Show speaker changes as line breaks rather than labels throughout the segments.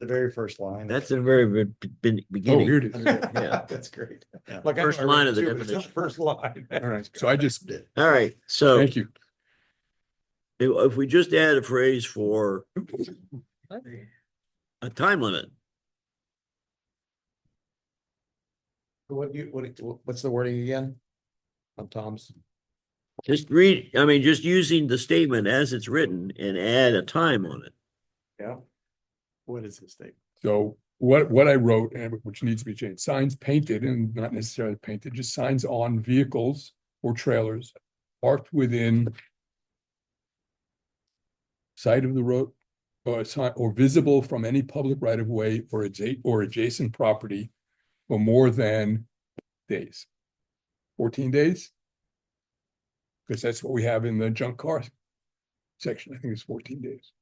the very first line.
That's the very be- be-
Oh, here
beginning.
it is.
Yeah.
That's great. Like, I know
First
I read
line
it
of the
too, but it's not
definition.
First line.
All right, so I just,
All right, so
thank you.
if we just add a phrase for a time limit,
What you, what, what's the wording again? On Tom's?
just read, I mean, just using the statement as it's written and add a time on it.
Yeah. What is his statement?
So what, what I wrote and which needs to be changed, signs painted and not necessarily painted, just signs on vehicles or trailers parked within side of the road or sign or visible from any public right of way or adjacent or adjacent property for more than days. Fourteen days? Because that's what we have in the junk car section. I think it's fourteen days.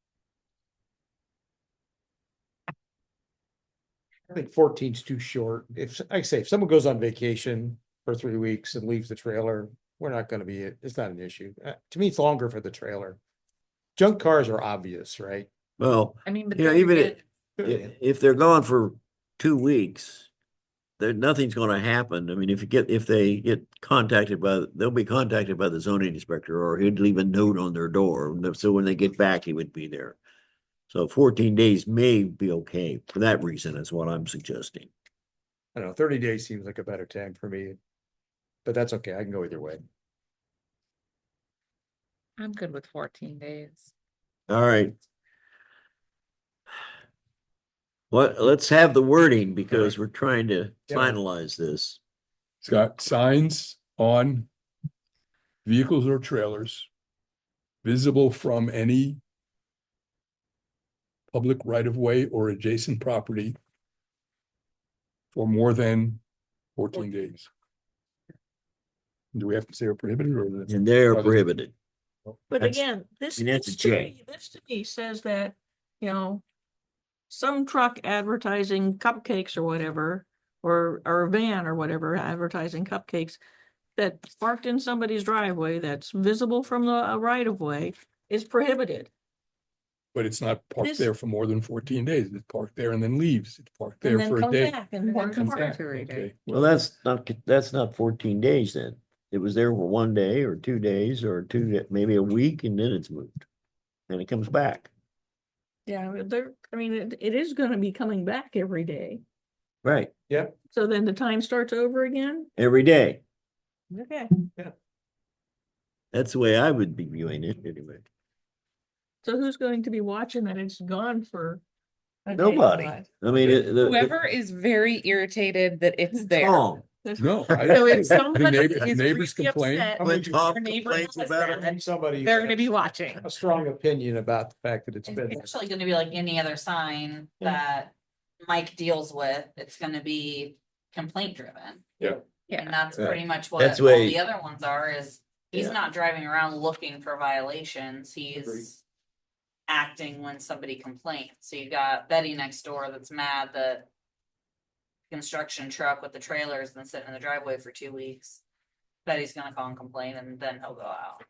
I think 14 is too short. If, I say, if someone goes on vacation for three weeks and leaves the trailer, we're not gonna be, it's not an issue. Uh, to me, it's longer for the trailer. Junk cars are obvious, right?
Well,
I mean, but.
Yeah,
then you
even
get-
it- i- if they're gone for two weeks, there, nothing's gonna happen. I mean, if you get, if they get contacted by, they'll be contacted by the zoning inspector or he'd leave a note on their door. and So when they get back, he would be there. So fourteen days may be okay for that reason is what I'm suggesting.
I don't know, 30 days seems like a better time for me. But that's okay, I can go either way.
I'm good with fourteen days.
All right. What, let's have the wording because we're trying to
Yeah.
finalize this.
It's got signs on vehicles or trailers visible from any public right of way or adjacent property for more than fourteen days. Do we have to say are prohibited or? is it-
And they're
Well, there's-
prohibited.
But
That's-
again, this,
mean, that's
this
a
to
J.
me, this to me says that, you know, some truck advertising cupcakes or whatever, or, or a van or whatever advertising cupcakes that's parked in somebody's driveway that's visible from the uh, right of way is prohibited.
But it's not parked
This-
there for more than fourteen days. It's parked there and then leaves. It's parked
And
there
then
for a
comes
day.
back
And
And
then
then
comes
comes
back.
back.
Every day.
Okay,
Well, that's not, that's not fourteen days then. It was there for one day or two days or two, da- maybe a week and then it's moved. And it comes back.
Yeah, but there, I mean, it, it is gonna be coming back every day.
Right.
So then the time starts over again?
Every day.
Okay.
That's the way I would be viewing it anyway.
So who's going to be watching that it's gone for? a day or
Nobody.
not?
I mean, it- the.
Whoever is very irritated that it's there.
Tom,
That's-
No. I-
So if
the
somebody
neighbor- the
is
Neighbors
really
complain.
upset,
when
Your
Tom
neighbor
complains
does
about it,
that.
Somebody.
They're gonna be watching.
A strong opinion about the fact that it's been.
It's actually gonna be like any other sign
Yeah.
that Mike deals with, it's gonna be complaint driven. And
Yeah,
that's
Yeah.
pretty much what
That's
all
way-
the other ones are is, he's
Yeah.
not driving around looking for violations, he's. Acting when somebody complains, so you got Betty next door that's mad that. Construction truck with the trailer's been sitting in the driveway for two weeks. Betty's gonna call and complain and then he'll go out.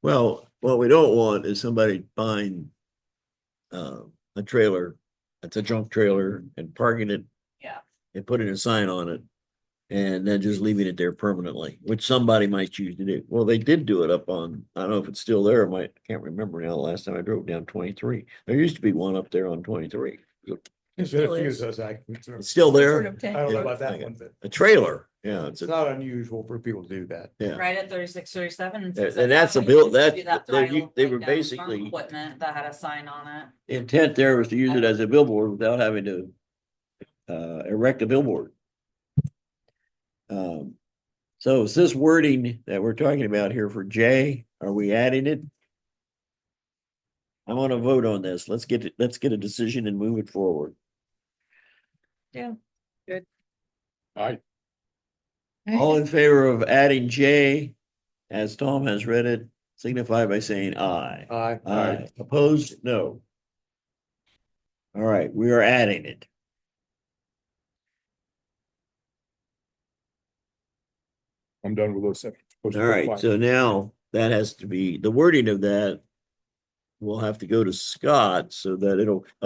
well, what we don't want is somebody buying uh, a trailer, it's a junk trailer and parking it.
Yeah.
And putting a sign on it and then just leaving it there permanently, which somebody might choose to do. Well, they did do it up on, I don't know if it's still there, I might, can't remember now, last time I drove down twenty-three. There used to be one up there on twenty-three,
There's been a few of those, I.
it's still
sort
there,
of
I
tangled
don't know
up.
about that one, but
a trailer, yeah, it's
it's
a
not unusual for people to do that.
Yeah.
Right at thirty-six, thirty-seven.
And-
says that
and that's a
company
bill-
used to
that-
do that
they-
tile
you- they were
breakdown from
basically-
Equipment that had a sign on it.
the intent there was to use it as a billboard without having to uh, erect a billboard. Um, so is this wording that we're talking about here for J, are we adding it? I want to vote on this. Let's get, it- let's get a decision and move it forward.
I,
All in favor of adding J, as Tom has read it, signify by saying aye.
Uh,
Aye. Opposed? No. All right, we are adding it.
I'm done with those seven. those
All right,
five.
so now that has to be, the wording of that will have to go to Scott so that it'll